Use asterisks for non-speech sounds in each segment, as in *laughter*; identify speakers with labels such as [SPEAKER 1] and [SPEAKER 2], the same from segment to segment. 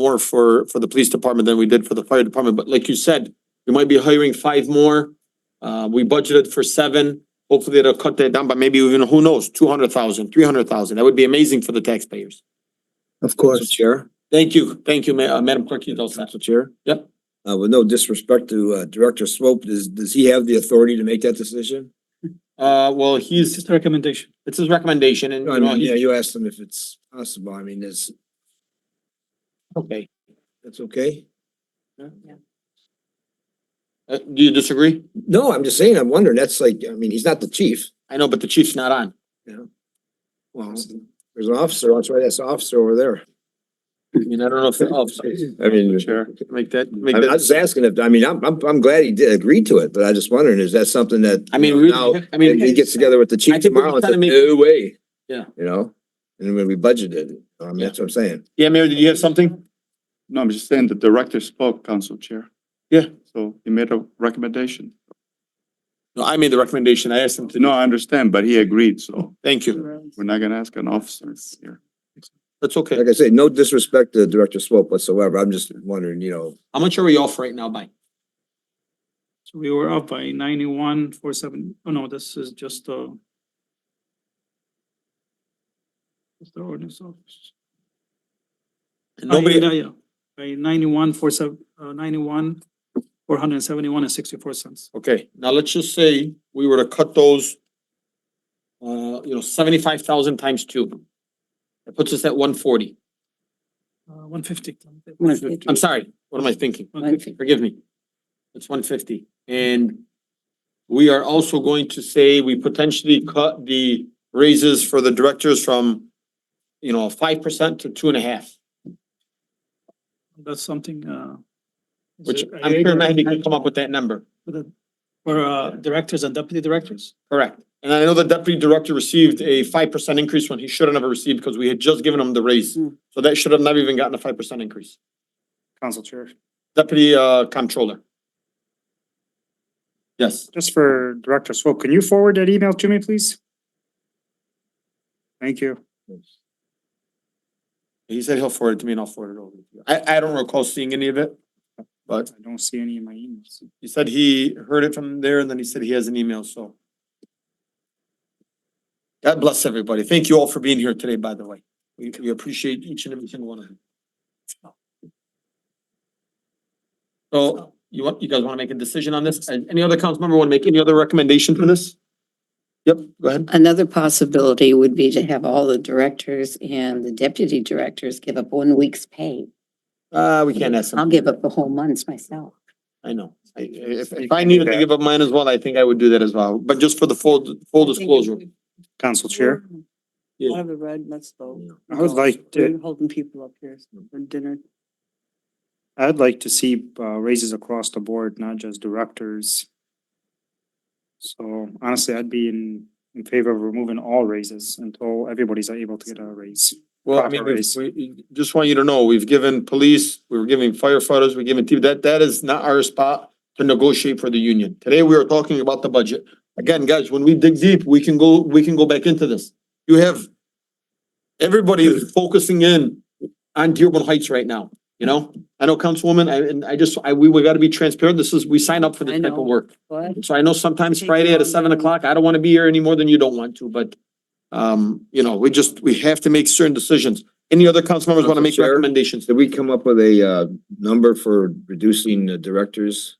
[SPEAKER 1] more for, for the police department than we did for the fire department, but like you said, we might be hiring five more. Uh, we budgeted for seven, hopefully it'll cut that down, but maybe even, who knows, two hundred thousand, three hundred thousand, that would be amazing for the taxpayers.
[SPEAKER 2] Of course.
[SPEAKER 3] Chair,
[SPEAKER 1] Thank you, thank you, Ma- uh, Madam Clerk, you don't
[SPEAKER 3] Council Chair.
[SPEAKER 1] Yep.
[SPEAKER 3] Uh, with no disrespect to, uh, Director Swope, does, does he have the authority to make that decision?
[SPEAKER 1] Uh, well, he's,
[SPEAKER 4] Just a recommendation.
[SPEAKER 1] it's his recommendation and,
[SPEAKER 3] No, I
[SPEAKER 1] you know,
[SPEAKER 3] mean, yeah,
[SPEAKER 1] he's,
[SPEAKER 3] you asked him if it's possible. I mean, is,
[SPEAKER 1] okay.
[SPEAKER 3] that's okay?
[SPEAKER 1] Uh, do you disagree?
[SPEAKER 3] No, I'm just saying, I'm wondering, that's like, I mean, he's not the chief.
[SPEAKER 1] I know, but the chief's not on.
[SPEAKER 3] Well, there's an officer, that's right, that's the officer over there.
[SPEAKER 1] I mean, I don't know if, oh, sorry.
[SPEAKER 3] *laughs* I mean,
[SPEAKER 1] Chair, make that, make
[SPEAKER 3] I'm, I'm
[SPEAKER 1] that,
[SPEAKER 3] just asking if, I mean, I'm, I'm, I'm glad he did agree to it, but I just wondering, is that something that?
[SPEAKER 1] I mean,
[SPEAKER 3] you
[SPEAKER 1] we,
[SPEAKER 3] know, now
[SPEAKER 1] I mean.
[SPEAKER 3] if he gets together with the
[SPEAKER 1] I
[SPEAKER 3] chief
[SPEAKER 1] think we're
[SPEAKER 3] tomorrow and
[SPEAKER 1] trying
[SPEAKER 3] says,
[SPEAKER 1] to make-
[SPEAKER 3] no way.
[SPEAKER 1] Yeah.
[SPEAKER 3] You know, and when we budgeted, I mean, that's what I'm saying.
[SPEAKER 1] Yeah, Mayor, did you have something?
[SPEAKER 5] No, I'm just saying the director spoke, Council Chair.
[SPEAKER 1] Yeah.
[SPEAKER 5] So he made a recommendation.
[SPEAKER 1] No, I made the recommendation. I asked him to,
[SPEAKER 5] No, I understand, but he agreed, so
[SPEAKER 1] thank you.
[SPEAKER 5] we're not gonna ask an officer here.
[SPEAKER 1] That's okay.
[SPEAKER 3] Like I say, no disrespect to Director Swope whatsoever. I'm just wondering, you know,
[SPEAKER 1] How much are we off right now by?
[SPEAKER 4] So we were up by ninety-one, four seven, oh no, this is just, uh. It's the ordinance office. Uh,
[SPEAKER 1] Nobody,
[SPEAKER 4] yeah, yeah. By ninety-one, four seven, uh, ninety-one, four hundred and seventy-one and sixty-four cents.
[SPEAKER 1] okay, now let's just say we were to cut those. Uh, you know, seventy-five thousand times two. That puts us at one forty.
[SPEAKER 4] Uh, one fifty.
[SPEAKER 1] I'm sorry, what am I thinking? Forgive me. It's one fifty and. We are also going to say we potentially cut the raises for the directors from. You know, five percent to two and a half,
[SPEAKER 4] That's something, uh. is
[SPEAKER 1] which
[SPEAKER 4] it-
[SPEAKER 1] I'm sure Mahdi can come up with that number.
[SPEAKER 4] For the- for, uh, directors and deputy directors?
[SPEAKER 1] Correct. And I know the deputy director received a five percent increase when he should have never received because we had just given him the raise. So that should have never even gotten a five percent increase.
[SPEAKER 6] Council Chair,
[SPEAKER 1] Deputy uh comptroller. Yes,
[SPEAKER 6] just for Director Swope, can you forward that email to me, please? Thank you.
[SPEAKER 1] he said he'll forward it to me and I'll forward it over. to you. I I don't recall seeing any of it,
[SPEAKER 6] I
[SPEAKER 1] but
[SPEAKER 6] don't see any in my emails.
[SPEAKER 1] he said he heard it from there and then he said he has an email, so. God bless everybody. Thank you all for being here today, by the way. We we appreciate each and every single one of you. So you want, you guys want to make a decision on this? And Any other council member want to make any other recommendation for this? Yep, go ahead.
[SPEAKER 7] Another possibility would be to have all the directors and the deputy directors give up one week's pay.
[SPEAKER 1] Uh, we can't ask
[SPEAKER 7] I'll
[SPEAKER 1] them.
[SPEAKER 7] give up the whole months myself.
[SPEAKER 1] I know. I- If if I needed to give up mine as well, I think I would do that as well, but just for the full full disclosure.
[SPEAKER 6] Council Chair,
[SPEAKER 1] Yeah.
[SPEAKER 8] Out of the red, let's vote.
[SPEAKER 6] I would like to,
[SPEAKER 8] We're Holding people up here for dinner.
[SPEAKER 6] I'd like to see uh, raises across the board, not just directors. So honestly, I'd be in, in favor of removing all raises until everybody's able to get a raise.
[SPEAKER 1] Well, I mean,
[SPEAKER 6] proper
[SPEAKER 1] we,
[SPEAKER 6] raise.
[SPEAKER 1] we, just want you to know, we've given police, we were giving firefighters, we're giving TV, that, that is not our spot to negotiate for the union. Today, we are talking about the budget. Again, guys, when we dig deep, we can go, we can go back into this. You have everybody is focusing in on Dearborn Heights right now, you know? I know Councilwoman, I, and I just, I, we, we gotta be transparent. This is, we sign up for
[SPEAKER 8] I
[SPEAKER 1] this type
[SPEAKER 8] know.
[SPEAKER 1] of work.
[SPEAKER 8] What?
[SPEAKER 1] So I know sometimes
[SPEAKER 8] Take
[SPEAKER 1] Friday at
[SPEAKER 8] long
[SPEAKER 1] seven
[SPEAKER 8] time.
[SPEAKER 1] o'clock, I don't wanna be here any more than you don't want to, but um, you know, we just, we have to make certain decisions. Any other council members wanna make
[SPEAKER 3] Council Chair?
[SPEAKER 1] recommendations?
[SPEAKER 3] did we come up with a, uh, number for reducing the directors?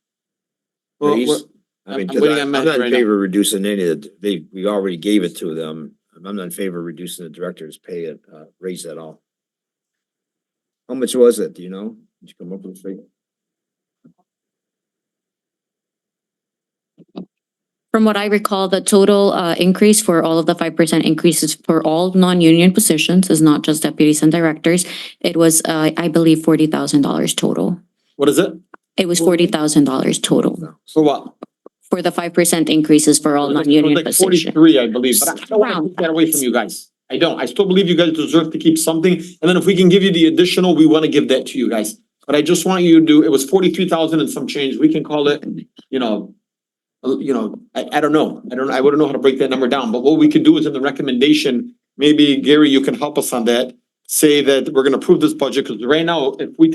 [SPEAKER 1] Well,
[SPEAKER 3] raise?
[SPEAKER 1] we're-
[SPEAKER 3] I mean,
[SPEAKER 1] I'm- I'm
[SPEAKER 3] 'cause
[SPEAKER 1] waiting
[SPEAKER 3] I-
[SPEAKER 1] on
[SPEAKER 3] I'm
[SPEAKER 1] Matt
[SPEAKER 3] not
[SPEAKER 1] right
[SPEAKER 3] in
[SPEAKER 1] now.
[SPEAKER 3] favor of reducing any of, the- they, we already gave it to them. I'm not in favor of reducing the director's pay at, uh, raise at all. How much was it, do you know? Did you come up with a figure?
[SPEAKER 9] From what I recall, the total uh increase for all of the five percent increases for all non-union positions is not just deputies and directors. It was, uh, I believe, forty thousand dollars total.
[SPEAKER 1] What is it?
[SPEAKER 9] It was forty thousand dollars total
[SPEAKER 1] For what?
[SPEAKER 9] for the five percent increases for all
[SPEAKER 1] It was like- it was
[SPEAKER 9] non-union
[SPEAKER 1] like
[SPEAKER 9] positions.
[SPEAKER 1] Forty-three, I believe, but I don't wanna
[SPEAKER 9] Around
[SPEAKER 1] take that away from you guys. I don't. I still believe you guys deserve to keep something, and then if we can give you the additional, we wanna give that to you guys. But I just want you to do, it was forty-three thousand and some change. We can call it, you know, uh, you know, I, I don't know. I don't, I wouldn't know how to break that number down, but what we could do is in the recommendation, maybe Gary, you can help us on that. Say that we're gonna approve this budget, cause right now, if we